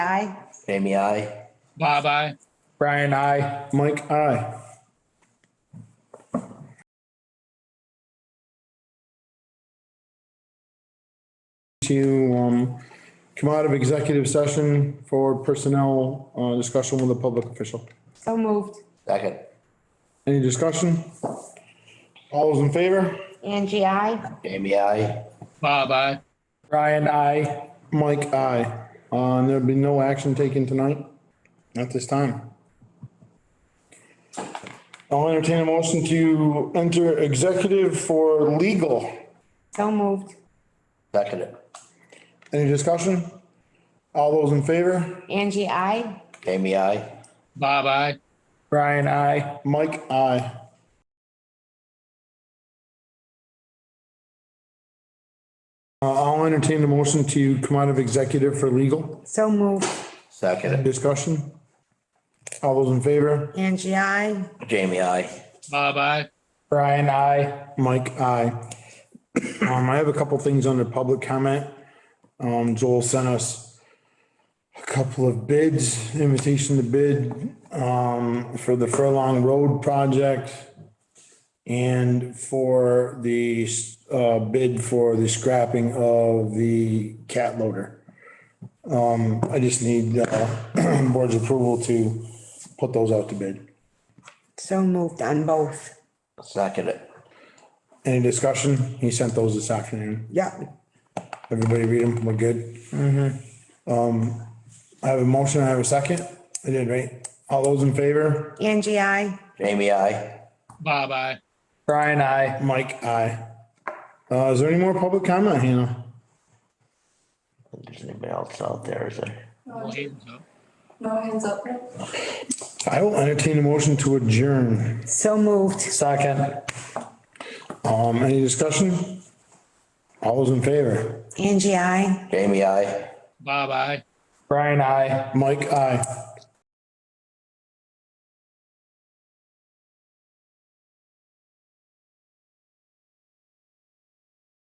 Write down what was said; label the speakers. Speaker 1: Aye.
Speaker 2: Jamie, I.
Speaker 3: Bob, I.
Speaker 4: Brian, I. Mike, I. To, um, come out of executive session for personnel, uh, discussion with a public official.
Speaker 1: So moved.
Speaker 2: Second.
Speaker 4: Any discussion? All those in favor?
Speaker 1: Angie, aye.
Speaker 2: Jamie, I.
Speaker 3: Bob, I.
Speaker 4: Brian, I. Mike, I. Uh, and there'll be no action taken tonight at this time. I'll entertain a motion to enter executive for legal.
Speaker 1: So moved.
Speaker 2: Second. it.
Speaker 4: Any discussion? All those in favor?
Speaker 1: Angie, aye.
Speaker 2: Jamie, I.
Speaker 3: Bob, I.
Speaker 4: Brian, I. Mike, I. Uh, I'll entertain a motion to come out of executive for legal.
Speaker 1: So moved.
Speaker 2: Second. it.
Speaker 4: Discussion? All those in favor?
Speaker 1: Angie, aye.
Speaker 2: Jamie, I.
Speaker 3: Bob, I.
Speaker 4: Brian, I. Mike, I. Um, I have a couple things under public comment. Um, Joel sent us a couple of bids, invitation to bid, um, for the Furlong Road project and for the, uh, bid for the scrapping of the cat loader. Um, I just need, uh, board's approval to put those out to bid.
Speaker 1: So moved on both.
Speaker 2: Second. it.
Speaker 4: Any discussion? He sent those this afternoon.
Speaker 1: Yep.
Speaker 4: Everybody read them. We're good. Um, I have a motion. I have a second. I did, right? All those in favor?
Speaker 1: Angie, aye.
Speaker 2: Jamie, I.
Speaker 3: Bob, I.
Speaker 4: Brian, I. Mike, I. Uh, is there any more public comment, Hannah?
Speaker 2: There's anybody else out there, is there?
Speaker 3: Well, he was up.
Speaker 5: No hands up.
Speaker 4: I will entertain a motion to adjourn.
Speaker 1: So moved.
Speaker 4: Second. Um, any discussion? All those in favor?
Speaker 1: Angie, aye.
Speaker 2: Jamie, I.
Speaker 3: Bob, I.
Speaker 4: Brian, I. Mike, I.